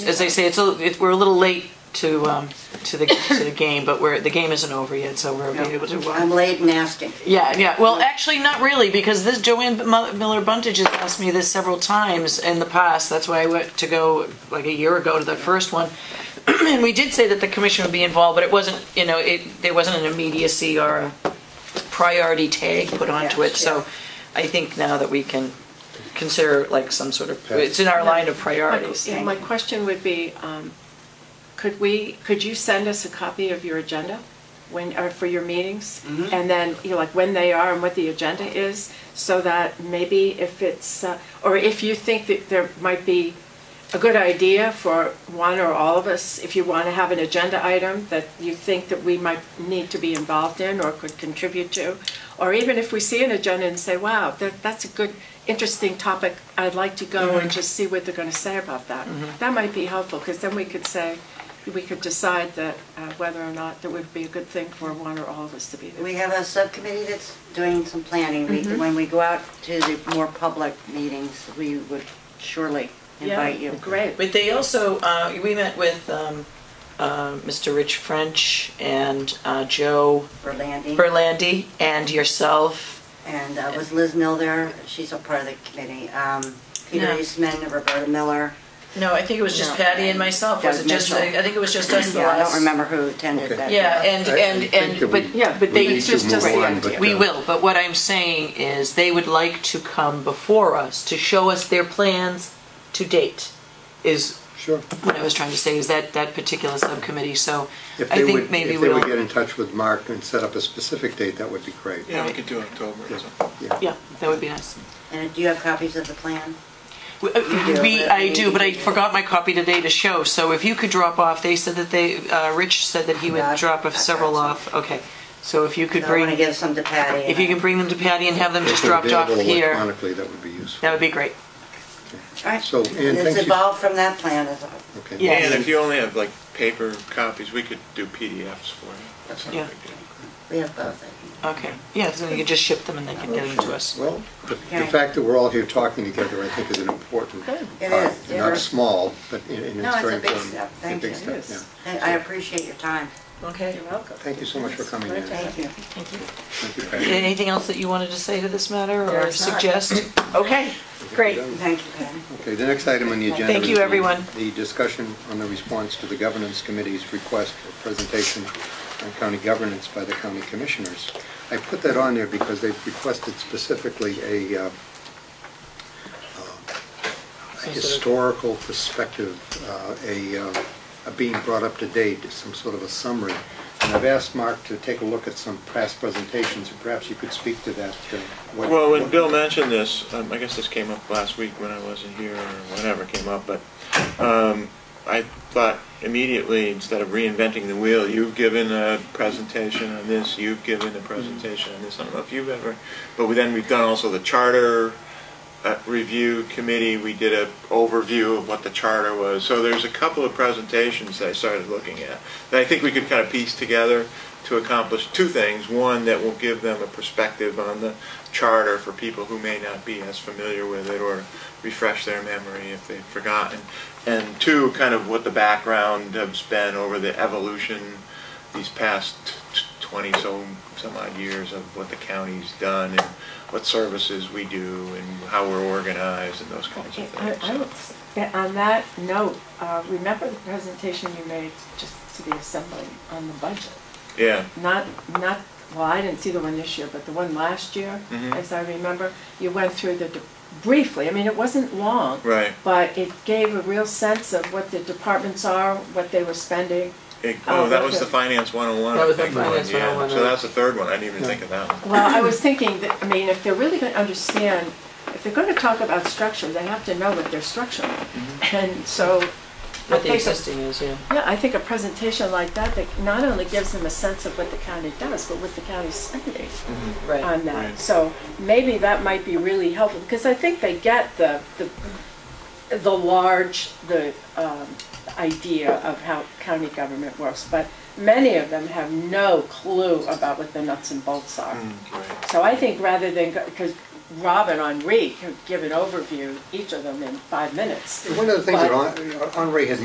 As I say, it's a, it, we're a little late to um, to the to the game, but we're the game isn't over yet, so we're able to. I'm Uh, late and asking. yeah, yeah. Well, actually, not really, because this Joanne Mu- Miller Buntage has asked me this several times in the past. That's why I went to go like a year ago to the first one, and we did say that the commission would be involved, but it wasn't. You know, it there wasn't an immediacy or a priority tag put onto Yes, it. So, I think now that we can consider like some sort of it's in our line of priorities. My- My question would be, um, could we, could you send us a copy of your agenda when, or for your meetings? And then, you know, like when they are and what the agenda is, so that maybe if it's, uh, or if you think that there might be a good idea for one or all of us, if you want to have an agenda item that you think that we might need to be involved in or could contribute to, or even if we see an agenda and say, wow, that, that's a good, interesting topic, I'd like to go and just see what they're going to say about that. That might be helpful, because then we could say, we could decide that, uh, whether or not that would be a good thing for one or all of us to be there. We have a subcommittee that's doing some planning. We- When we go out to the more public meetings, we would surely invite Yeah, you. Great. But they also, uh, we met with um, uh, Mr. Rich French and uh, Joe For landing. Berlandi and yourself. And uh, was Liz Mill there? She's a part of the committee. Um, Peter No. Eastman, Roberta Miller. No, I think it was just No, Patty and myself. Was Doug it just? I Mitchell. I think it was just us. the Yeah, I last- don't remember who attended Okay. that. Yeah, and I- I and think and that but we- Yeah, but we they need to just, just move the on, but, idea. We uh, will, but what I'm saying is they would like to come before us to show us their plans to date is Sure. what I was trying to say is that that particular subcommittee. So If I they think would- maybe If they we'll would get in touch with Mark and set up a specific date, that would be great. Yeah, we could do October or something. yeah, that would be nice. And do you have copies of the plan? We, uh, we- I do, but I forgot my copy today to show, so if you could drop off, they said that they, uh, Rich said that he Yeah, would drop off I've got several some. off, okay. So if you could I want to bring, give some to Patty. if you and can bring them to Patty and have them just If they're dropped off available here, Electronically, that would be useful. that would be great. I- All right. So, Ann, It's thank you. evolved from that plan, is all. Okay. Yeah. And if you only have like paper copies, we could do PDFs for you. That's not a Yeah. big deal. We have both, I think. Okay, yeah, so you could just ship them and they can get them to us. Well, the the Okay. fact that we're all here talking together, I think, is an important part. It is, And Not yeah. small, but i- and No, it's it's very a big important. step. It's a Thank big you. step, It is. yeah. I I appreciate your time. Okay. You're welcome. Thank you so much for coming in. Thank Thank you. Thank you, Patty. Anything else that you wanted to say to this matter or There's not. suggest? Okay, great. Thank you, Patty. Okay, the next item on the agenda. Thank you, is the- everyone. The discussion on the response to the governance committee's request for presentation on county governance by the county commissioners. I put that on there because they've requested specifically a uh, a historical perspective, uh, a uh, a being brought up to date, some sort of a summary. And I've asked Mark to take a look at some past presentations, and perhaps you could speak to that. uh, what- Well, when what- Bill mentioned this, um, I guess this came up last week when I wasn't here or whenever it came up, but um, I thought immediately, instead of reinventing the wheel, you've given a presentation on this, you've given a presentation on this. I don't know if you've ever, but we- then we've done also the charter uh, review committee. We did a overview of what the charter was. So there's a couple of presentations that I started looking at that I think we could kind of piece together to accomplish two things. One, that will give them a perspective on the charter for people who may not be as familiar with it or refresh their memory if they've forgotten. And two, kind of what the background has been over the evolution these past t- 20 so some odd years of what the county's done and what services we do and how we're organized and those kinds of I- things. I would s- that- On that note, uh, remember the presentation you made just to the assembly on the budget? Yeah, Not, not, well, I didn't see the one this year, but the one last year, Mhm. as I remember, you went through the, de- briefly, I mean, it wasn't long. right. But it gave a real sense of what the departments are, what they were spending. It- Oh, oh, that was the okay. finance 101. That was I the think, one, Finance yeah. 101, So right. that's the third one. I didn't even think of that one. Well, I was thinking that, I mean, if they're really going to understand, if they're going to talk about structure, they have to know what their structure. is. And so What the Okay, so- existing is, yeah. Yeah, I think a presentation like that, that not only gives them a sense of what the county does, but what the county's spending Right. on that. Right. So maybe that might be really helpful, because I think they get the, the, the large, the, um, idea of how county government works, but many of them have no clue about what the nuts and bolts are. Mm. Right. So I think rather than, because Rob and Henri could give an overview, each of them in five minutes. One of the things that But- Hon- Henri had